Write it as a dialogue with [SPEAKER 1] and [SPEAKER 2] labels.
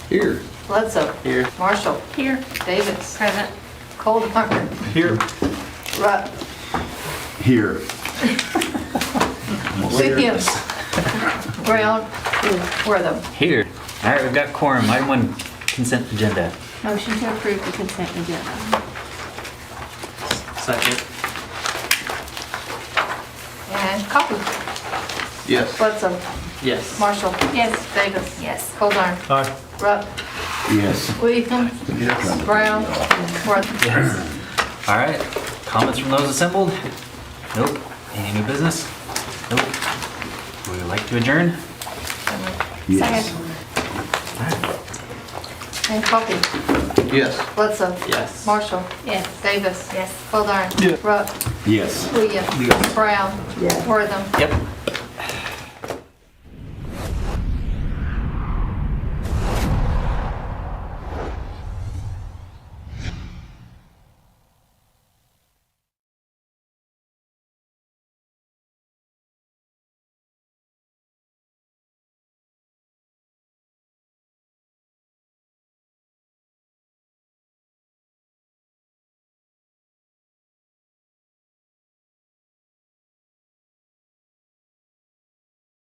[SPEAKER 1] Here.
[SPEAKER 2] Bledsoe.
[SPEAKER 3] Here.
[SPEAKER 2] Marshall.
[SPEAKER 4] Here,
[SPEAKER 2] Davis.
[SPEAKER 4] present.
[SPEAKER 2] Cole DeMarco.
[SPEAKER 3] Here.
[SPEAKER 2] Rupp.
[SPEAKER 1] Here.
[SPEAKER 2] Williams. Brown. Wortham.
[SPEAKER 5] Here. All right, we've got quorum. Item one, consent agenda.
[SPEAKER 4] Motion to approve the consent agenda.
[SPEAKER 3] Second.
[SPEAKER 2] And Coffee.
[SPEAKER 3] Yes.
[SPEAKER 2] Bledsoe.
[SPEAKER 3] Yes.
[SPEAKER 2] Marshall.
[SPEAKER 4] Yes.
[SPEAKER 2] Davis.
[SPEAKER 4] Yes.
[SPEAKER 2] Cole Darn.
[SPEAKER 3] Aye.
[SPEAKER 2] Rupp.
[SPEAKER 1] Yes.
[SPEAKER 2] Williams.
[SPEAKER 1] Yes.
[SPEAKER 2] Brown. Wortham.
[SPEAKER 5] All right, comments from those assembled? Nope. Any new business? Nope. Would you like to adjourn?
[SPEAKER 1] Yes.
[SPEAKER 4] Second.
[SPEAKER 2] And Coffee.
[SPEAKER 3] Yes.
[SPEAKER 2] Bledsoe.
[SPEAKER 3] Yes.
[SPEAKER 2] Marshall.
[SPEAKER 4] Yes.
[SPEAKER 2] Davis.
[SPEAKER 4] Yes.
[SPEAKER 2] Cole Darn. Rupp.
[SPEAKER 1] Yes.
[SPEAKER 2] Williams. Brown. Wortham.
[SPEAKER 5] Yep.